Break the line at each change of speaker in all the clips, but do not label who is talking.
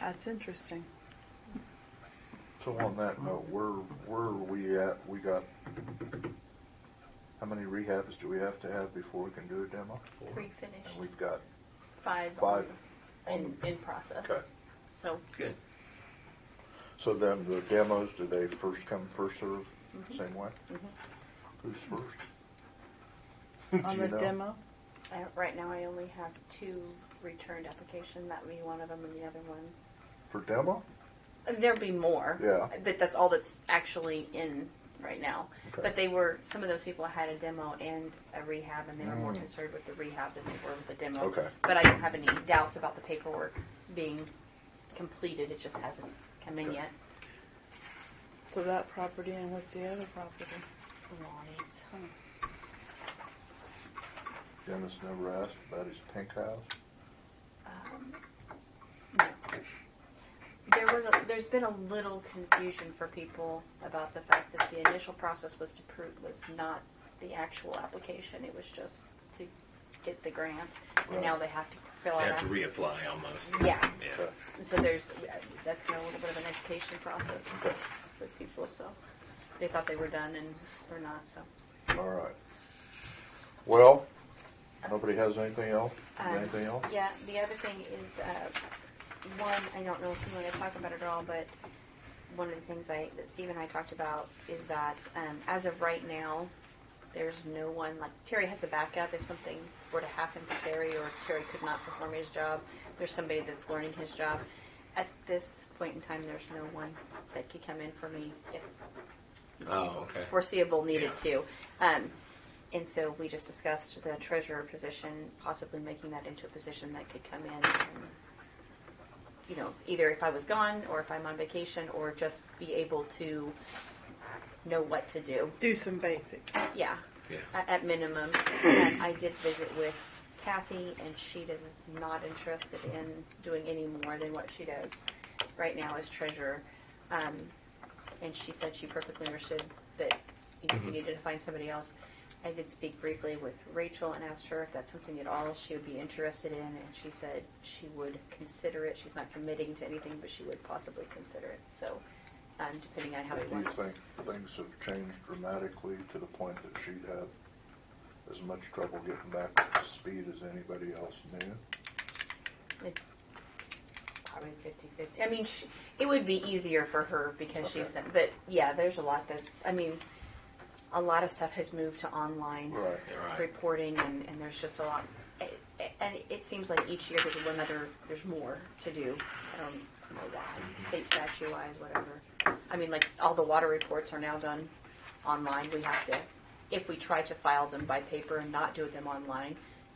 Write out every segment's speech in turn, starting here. That's interesting.
So on that note, where, where are we at? We got, how many rehabs do we have to have before we can do a demo?
Three
And
finished,
we've got,
five.
Five.
In, in process.
Okay.
So,
Good.
so then the demos, do they first come, first serve, same way?
Mhm.
Who's first?
On
Do
the
you know?
demo?
I, right now I only have two returned application, that would be one of them and the other one.
For demo?
And There'll be more.
Yeah.
But that's all that's actually in right now.
Okay.
But they were, some of those people had a demo and a rehab, and they were more
Mm.
concerned with the rehab than they were with the demo.
Okay.
But I don't have any doubts about the paperwork being completed, it just hasn't come in
Okay.
yet.
So that property and what's the other property?
Lonnie's.
Dennis never asked about his pink house?
Um, no. Um, There was a, there's been a little confusion for people about the fact that the initial process was to prove was not the actual application. It was just to get the grant, and now
Right.
they have to fill
I
out.
have to
app-
reapply almost.
Yeah.
Yeah.
Okay.
And So there's that's been a little bit of an education process
Okay.
with people. So they thought they were done and we're not. So
All right. Well, nobody has anything else?
Um,
Anything else?
Yeah, the other thing is, uh, one, I don't know if you want to talk about it at all, but one of the things I, that Steve and I talked about is that um, as of right now, there's no one, like, Terry has a backup if something were to happen to Terry or Terry could not perform his job. There's somebody that's learning his job. At this point in time, there's no one that could come in for me if
Oh, okay.
foreseeable needed
Yeah.
to. Um, and so we just discussed the treasurer position, possibly making that into a position that could come in. And, you know, either if I was gone or if I'm on vacation or just be able to know what to do.
Do some basics.
Yeah,
Yeah.
at, at minimum. And I did visit with Kathy, and she is not interested in doing any more than what she does right now as treasurer. Um, and she said she perfectly understood that you know, you needed to find somebody else. I did speak briefly with Rachel and asked her if that's something at all she would be interested in, and she said she would consider it. She's not committing to anything, but she would possibly consider it. So, um, depending on how it
Do you
works.
think things have changed dramatically to the point that she'd have as much trouble getting back to speed as anybody else knew?
Probably 50 50. I mean, sh it would be easier for her because she's, but yeah, there's a lot that's, I mean, a lot of stuff has moved to online
Right.
Right.
reporting, and, and there's just a lot. a- a- And it seems like each year there's one other, there's more to do. I don't know
Mm-hmm.
why, state statute wise, whatever. I mean, like, all the water reports are now done online. We have to, if we try to file them by paper and not do them online,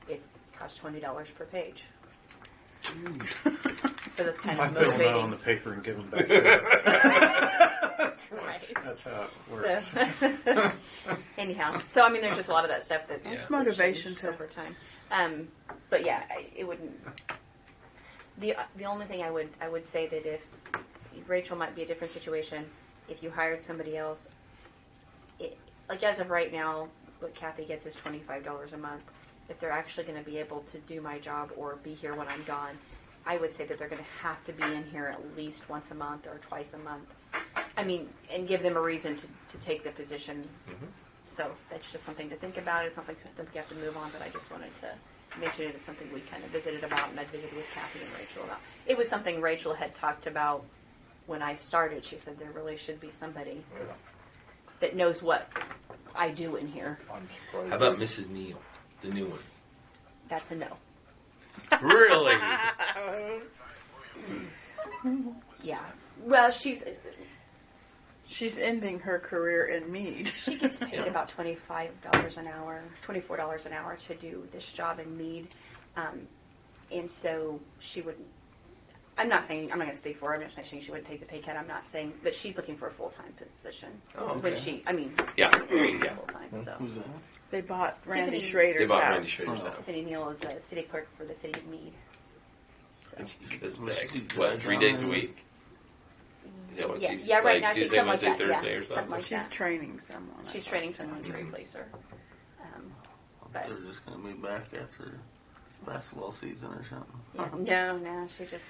it costs $20 per page. So that's kind
I
of
fill them out
motivating.
on the paper and give them back to her.
Right.
That's how it
So,
works.
anyhow, so I mean, there's just a lot of that stuff that's
That's
that's
motivation
changed
to-
over time. Um, but yeah, I, it wouldn't. The the only thing I would I would say that if Rachel might be a different situation, if you hired somebody else, it, like as of right now, what Kathy gets is twenty five dollars a month. If they're actually going to be able to do my job or be here when I'm gone, I would say that they're going to have to be in here at least once a month or twice a month. I mean, and give them a reason to, to take the position. So that's just something to think about. It's something that you have to move on, but I just wanted to mention it. It's something we kind of visited about, and I visited with Kathy and Rachel about. It was something Rachel had talked about when I started. She said there really should be somebody 'cause- that knows what I do in here.
I'm surprised.
How about Mrs. Neal, the new one?
That's a no.
Really?
Yeah. Well, she's
She's ending her career in Mead.
She gets paid about twenty-five dollars an hour, twenty-four dollars an hour to do this job in Mead, um, and so she would. I'm not saying I'm not going to speak for her. I'm not saying she wouldn't take the pay cut. I'm not saying, but she's looking for a full-time position.
Oh,
When
okay.
she, I mean,
Yeah. Yeah.
full-time. So
They bought Randy
Tiffany.
Schrader's
They bought
house.
Randy Schrader's house.
Cindy Neal is a city clerk for the city of Mead. So.
She goes back, what, three days a week? Is that what
yeah,
she's
yeah, right
like
now I think
Tuesday,
something like
Wednesday,
that. yeah,
Thursday or something?
like
She's
that.
training someone. I
She's
thought.
training someone to
Mm-hmm.
replace her. Um, but
Oh.
They're just gonna be back after basketball season or something.
yeah, no, no, she just